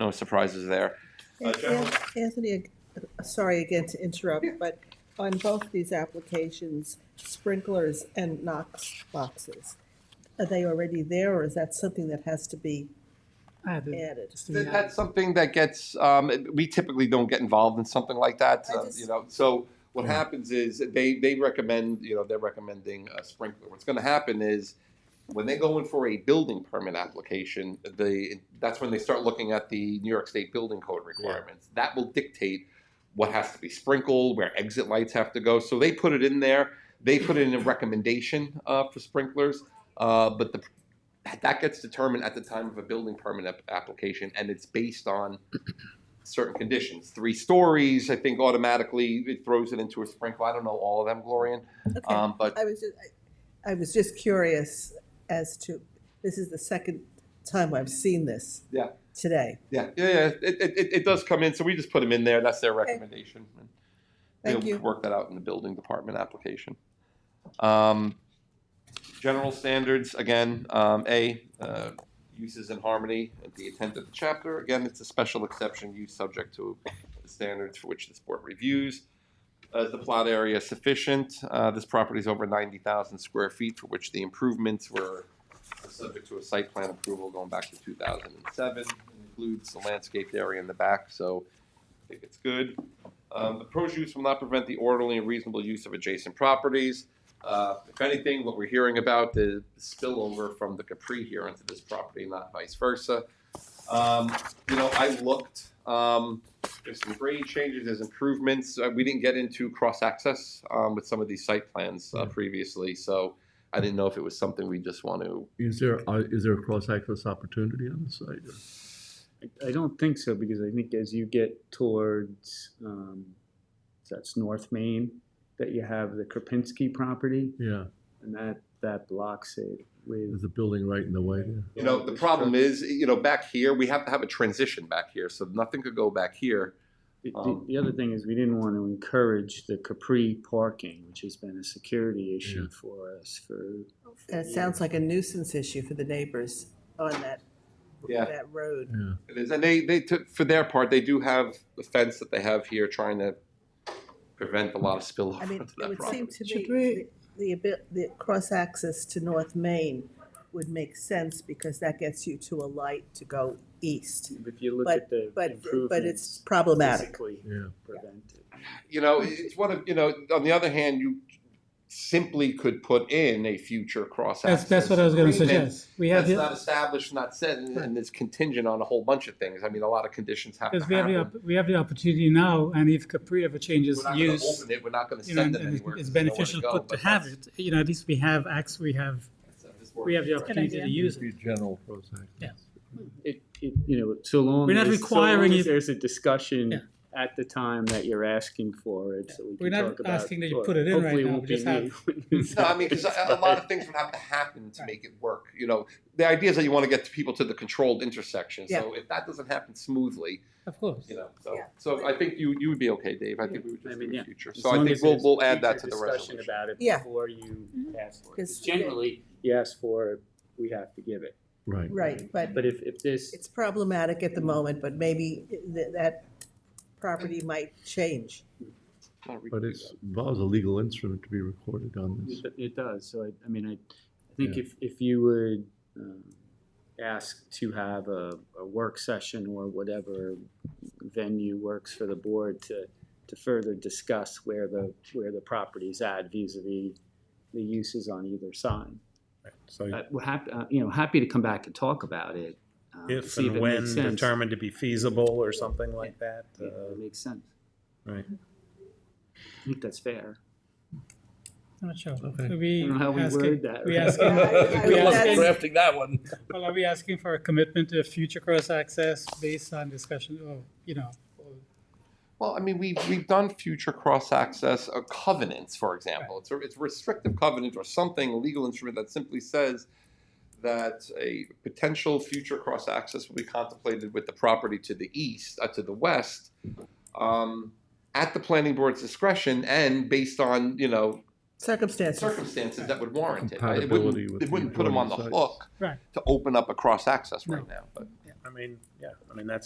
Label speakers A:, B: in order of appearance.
A: no surprises there.
B: Uh, General-
C: Anthony, uh, sorry again to interrupt, but on both these applications, sprinklers and Knox boxes, are they already there or is that something that has to be
D: Ah, the-
C: added?
D: it's
A: Th-
D: the, uh,
A: That's something that gets, um, we typically don't get involved in something like that,
C: I
A: uh,
C: just-
A: you know, so what happens is, they, they recommend, you know, they're recommending a sprinkler. What's gonna happen is, when they go in for a building permit application, the, that's when they start looking at the New York State Building Code requirements. That will dictate what has to be sprinkled, where exit lights have to go, so they put it in there, they put in a recommendation, uh, for sprinklers, uh, but the that gets determined at the time of a building permit ap- application, and it's based on certain conditions. Three stories, I think automatically it throws it into a sprinkle. I don't know all of them, Glorian,
C: Okay,
A: um, but
C: I was, ju- I I was just curious as to, this is the second time I've seen this.
A: Yeah.
C: Today.
A: yeah, yeah, yeah, it, it, it- it does come in, so we just put them in there. That's their recommendation. and
C: Thank
A: they'll
C: you.
A: Work that out in the building department application. Um, general standards, again, um, A, uh, uses in harmony at the intent of the chapter. Again, it's a special exception use subject to the standards for which this board reviews. Uh, Is the plot area sufficient? Uh, This property is over 90,000 square feet for which the improvements were subject to a site plan approval going back to 2007. It Includes the landscaped area in the back, so I think it's good. Um, The proposed use will not prevent the orderly and reasonable use of adjacent properties. Uh, If anything, what we're hearing about the spillover from the Capri here into this property, not vice versa. Um, You know, I looked, um, there's some grade changes, there's improvements. Uh, We didn't get into cross-access um, with some of these site plans uh, previously, so I didn't know if it was something we just want to
E: Is there, uh, is there a cross-access opportunity on the site?
F: I don't think so, because I think as you get towards, um, that's North Main, that you have the Kropinski property,
E: Yeah,
F: and that, that blocks it with.
E: there's a building right in the way there.
A: You know, the problem is, you know, back here, we have to have a transition back here, so nothing could go back here.
F: The- the-
A: um,
F: The other thing is, we didn't want to encourage the Capri parking, which has been a security issue for us for
C: And it sounds like a nuisance issue for the neighbors on that,
A: Yeah.
C: that road.
E: Yeah,
A: It is, and they, they, took- for their part, they do have the fence that they have here trying to prevent a lot of spillover
C: I
A: to
C: mean, it
A: that
C: would seem
A: property.
C: to me,
D: Should we-
C: the- the, abi- the cross-access to North Main would make sense because that gets you to a light to go east.
F: If you look at the
C: But,
F: improvements.
C: but it's problematic.
F: physically
E: yeah.
F: prevented.
A: You know, it's one of, you know, on the other hand, you simply could put in a future cross
D: That's,
A: access.
D: that's what I was gonna suggest. We have,
A: That's
D: the
A: not established, not said, and and it's contingent on a whole bunch of things. I mean, a lot of conditions have to
D: because we have the,
A: happen.
D: op- we have the opportunity now, and if Capri ever
A: We're
D: changes
A: not gonna
D: use,
A: open it, we're not gonna
D: you know,
A: send
D: and
A: them
D: and
A: anywhere.
D: it's
A: 'cause they know where
D: beneficial
A: go,
D: good to
A: but
D: have
A: that's-
D: it, you know, at least we have acts, we have,
A: that's-
D: we have the
A: that's-
D: opportunity to use it.
E: Be general cross-access.
D: Yeah.
F: It, it, you know, so long.
D: We're not
F: as- so long
D: requiring
F: as
D: you-
F: There's a discussion
D: Yeah.
F: at the time that you're asking for it, so we
D: We're
F: can
D: not
F: talk about.
D: asking that you
F: or
D: put it in right
F: hopefully it
D: now,
F: won't
D: we
F: be
D: just have-
F: me.
A: No, I mean, because a, a lot of things would have to happen to make it work. You know, the idea is that you want to get people to the controlled intersection. So if that doesn't happen smoothly,
D: Of course.
A: you know, so
C: Yeah.
A: so I think you you would be okay, Dave. I think we would
F: I
A: just
F: mean,
A: do the
F: yeah.
A: future.
F: As
A: So I
F: long
A: think
F: as
A: we'll
F: there's
A: we'll add that to
F: future
A: the
F: discussion
A: resolution.
F: About it
C: Yeah. Mm-hmm.
F: before you ask for it. 'Cause
C: Because-
F: Generally, you ask for it, we have to give it.
E: Right.
C: Right, but
F: But if, if this,
C: it's problematic at the moment, but maybe th- that property might change.
A: No, we
E: But
A: can do
E: it's, involves a legal instrument to be recorded on this.
F: it it does, so I, I mean, I, I think
E: Yeah.
F: if, if you would, um, ask to have a, a work session or whatever venue works for the board to, to further discuss where the, where the property's at vis-à-vis the uses on either side.
G: So
F: Uh, We're happy, uh, you know, happy to come back and talk about it. um,
G: if
F: see
G: and
F: it
G: when
F: makes sense.
G: determined to be feasible or something like that.
F: Yeah,
G: uh,
F: It makes sense.
G: Right.
F: I think that's fair.
D: I'm not sure.
E: Okay.
D: Are we
F: I don't know how we
D: asking,
F: word that.
D: we asking,
C: I-
D: we
C: I-
D: asking,
C: drafting
G: that one.
D: well, are we asking for a commitment to future cross-access based on discussion of, you know,
A: Well, I mean, we've, we've done future cross-access uh, covenants, for example. It's a, it's a restrictive covenant or something, a legal instrument that simply says that a potential future cross-access will be contemplated with the property to the east, uh, to the west, um, at the planning board's discretion and based on, you know,
C: Circumstances.
A: circumstances that would warrant it. right? It wouldn't-
E: Compatibility with
A: It wouldn't put them on the
E: the
A: hook
D: Right.
A: to open up a cross-access right now, but.
G: I mean, yeah, I mean, that's